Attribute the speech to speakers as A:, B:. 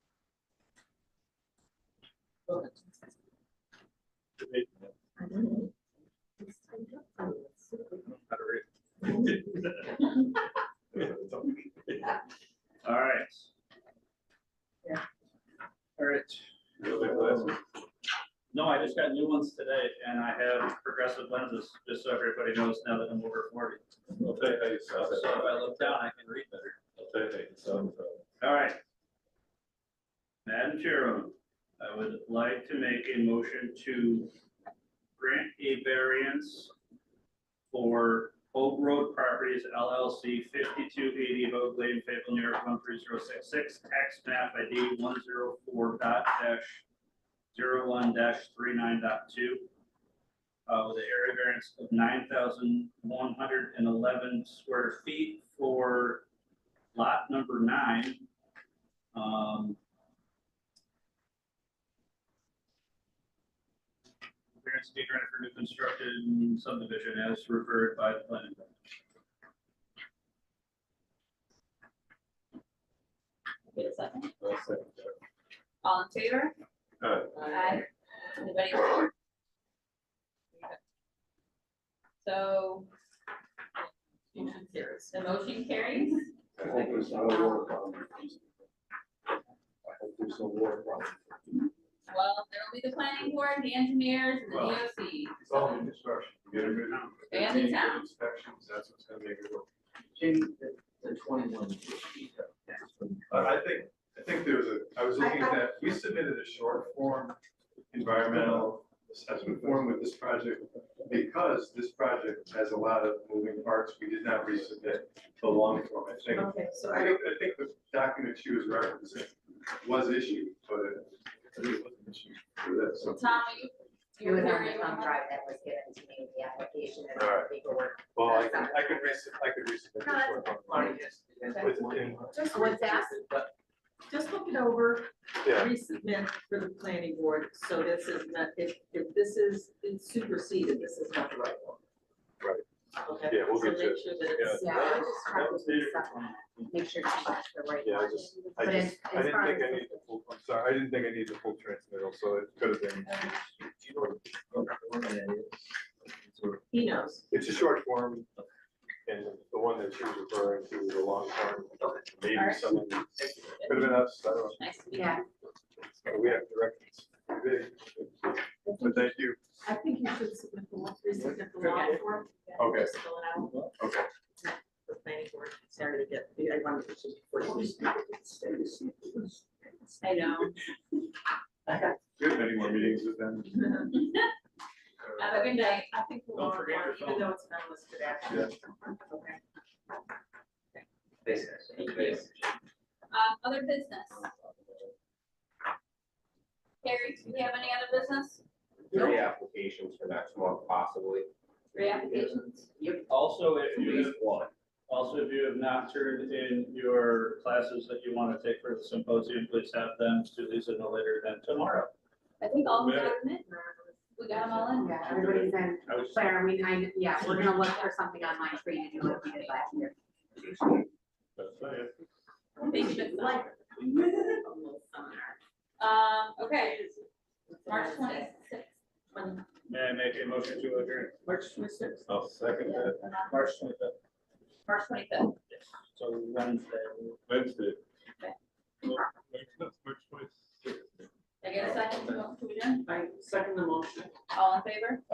A: All right.
B: Yeah.
A: All right. No, I just got new ones today and I have progressive lenses, just so everybody knows now that I'm over forty.
C: I'll tell you how you
A: So
C: sound.
A: if I look down, I can read better.
C: I'll tell you how you sound.
A: All right. Madam Chairwoman, I would like to make a motion to grant a variance for Hope Road Properties LLC fifty-two eighty of Oak Lane, Fayetteville, New York, one three zero six six, tax map ID one zero four dot dash zero one dash three nine dot two. Uh, with an area variance of nine thousand one hundred and eleven square feet for lot number nine. um, Variance to be granted for new construction subdivision as referred by the planning. board.
B: Wait a second.
C: I'll second that.
B: All in favor?
C: Alright,
B: Aye. Anybody? opposed? So. Motion carries. The motion carries.
D: I hope there's no war problem. I hope there's no war problem.
B: Well, there will be the planning board, the engineers, and the
A: Well,
B: DOC.
C: It's all in construction. You get a good.
B: And the town.
C: Inspections, that's what's gonna make it work.
D: Jim, the- the twenty-one. feet, that's what-
C: I, I think, I think there was a, I was looking at that, we submitted a short form environmental assessment form with this project because this project has a lot of moving parts. We did not resubmit the long form, I think.
E: Okay, so
C: I
E: I,
C: think, I think the document she was referencing was issued, but it I think it wasn't issued for that, so.
B: Tom, are you?
E: it
B: you're
E: was on
B: here,
E: the
B: you
E: thumb
B: want-
E: drive that was given to me, the application and
C: All
E: all
C: right.
E: the paperwork.
C: Well, I can, I can resub, I could resubmit the short form.
D: Marty, yes, yes,
C: With-
D: one.
C: in-
E: Just
F: what's that?
D: But
F: Just look it over,
C: Yeah,
F: resubmit for the planning board, so this is not, if, if this is it's superseded, this is not the right one. Right. Okay.
C: Yeah, we'll get
F: So
C: to
F: make sure that it's,
E: Yeah, I would just try
A: That was
E: to
A: there.
E: make sure it's the right
C: Yeah, I
E: one.
C: just- I
E: But as-
C: just, I
E: as
C: didn't
E: far
C: think
E: as
C: I
E: the-
C: needed the full, I'm sorry, I didn't think I needed the full transmittal, so it could have been,
D: do you know what the one that is? Sort
F: he knows.
C: it's a short form. And the one that she was referring to was a long form, maybe
B: Alright.
C: someone, could have been us, I don't
B: Nice to meet you.
E: Yeah,
C: know, we have directions. But thank you,
F: I think you should submit the, law- resubmit the law form.
C: Okay.
F: Just fill it out.
C: okay,
F: The planning board, sorry to get, I wanted to.
B: I know.
C: we have many more meetings with them. Uh,
B: Have a good night.
F: I think we'll,
A: Don't forget your
F: even though it's not listed after. Okay.
D: Thanks, guys. Thanks.
B: Um, other business. Carrie, do you have any other business?
G: three applications for next month possibly.
B: Reapplications?
A: Also, if
G: At
A: you,
G: least one.
A: also if you have not turned in your classes that you want to take for the symposium, please have them to Lisa no later than tomorrow.
B: I think all the
C: Mayor.
B: documents, we got them all in.
E: yeah, everybody's in,
A: I was,
E: but are we, I, yeah, we're gonna look for something online for you to do what we did last year.
B: They should like. Um, okay, March twenty-sixth.
A: may I make a motion to adjourn?
F: March twenty-sixth.
C: I'll second that,
A: March twenty-fifth,
B: March twenty-fifth.
A: so Wednesday.
C: Wednesday.
B: Okay.
C: Well, that's March 26th.
B: I get a second to to adjourn?
F: I second the motion.
B: All in favor?